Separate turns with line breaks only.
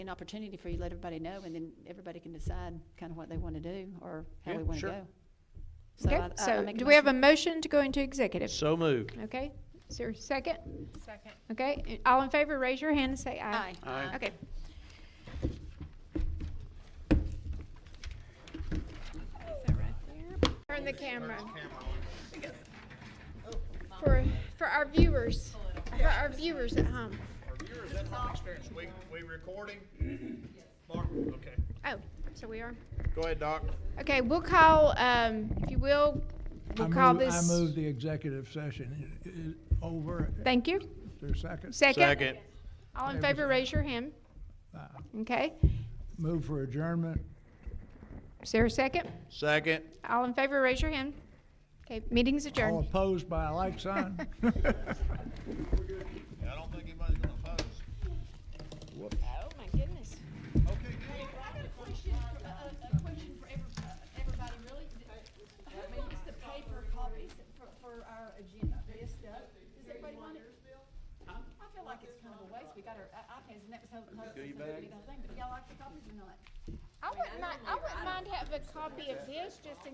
an opportunity for you, to let everybody know, and then everybody can decide kind of what they want to do or how
Yeah,
we want to
sure.
go. I- I-
Okay,
I
so
make
do we have a motion to go into executive?
So moved.
Okay, is there a second?
Second.
Okay, and all in favor, raise your hand and say
Aye.
aye.
Aye.
Okay. Is that right there? Turn the camera. For, for our viewers, for our viewers at home.
Our viewers at home experience, we, we recording? Mark, okay.
Oh, so we are.
Go ahead, Doc.
Okay, we'll call, um, if you will,
I
we'll call
move-
this.
I move the executive session i- i- over.
Thank you.
Is there a second?
Second.
Second.
All in
Favor say
favor, raise your hand.
Uh,
Okay,
Move for adjournment.
is there a second?
Second.
All in favor, raise your hand. Okay, meeting's
All
adjourned.
opposed by a like sign.
I don't think anybody's gonna oppose.
Oh, my goodness.
Okay, good.
I got a question, for- a, a- a question for every- uh, everybody, really. Who needs the paper copies for, for our agenda, this stuff? Does everybody want it? I feel like it's kind of a waste, we got our i- iPads, and that was how, how, how we did the whole thing, but y'all like the copies or not?
I wouldn't mind, I wouldn't mind having a copy of this just in